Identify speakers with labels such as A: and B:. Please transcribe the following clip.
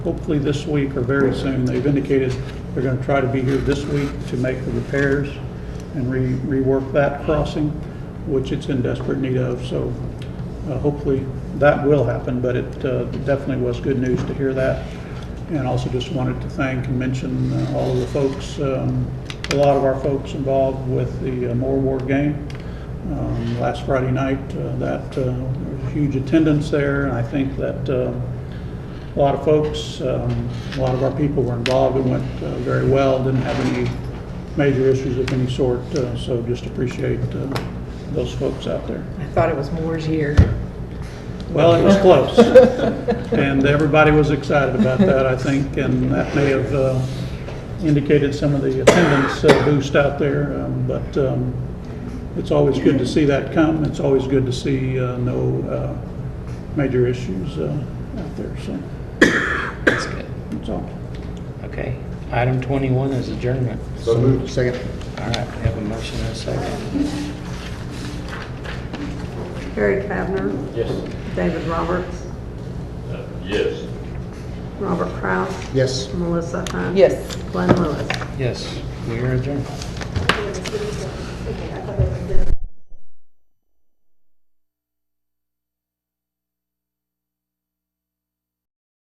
A: hopefully this week or very soon. They've indicated they're going to try to be here this week to make the repairs and re- rework that crossing, which it's in desperate need of. So uh, hopefully that will happen, but it uh, definitely was good news to hear that. And also just wanted to thank and mention uh, all of the folks, um, a lot of our folks involved with the uh, Moore Ward game um, last Friday night, uh, that, uh, there was huge attendance there, and I think that uh, a lot of folks, um, a lot of our people were involved, it went uh, very well, didn't have any major issues of any sort, uh, so just appreciate uh, those folks out there.
B: I thought it was Moore's year.
A: Well, it was close, and everybody was excited about that, I think, and that may have uh, indicated some of the attendance uh, boost out there, um, but um, it's always good to see that come, it's always good to see uh, no uh, major issues uh, out there, so
C: That's good.
A: that's all.
C: Okay. Item 21 is adjournment.
D: So moved. Second.
C: All right, we have a motion and a second.
E: Harry Cavner,
D: Yes. Uh,
E: David Roberts,
D: Yes.
E: Robert Kraus,
D: Yes.
E: Melissa Hunt.
B: Yes.
E: Glenn Lewis.
C: Yes, we are adjourned.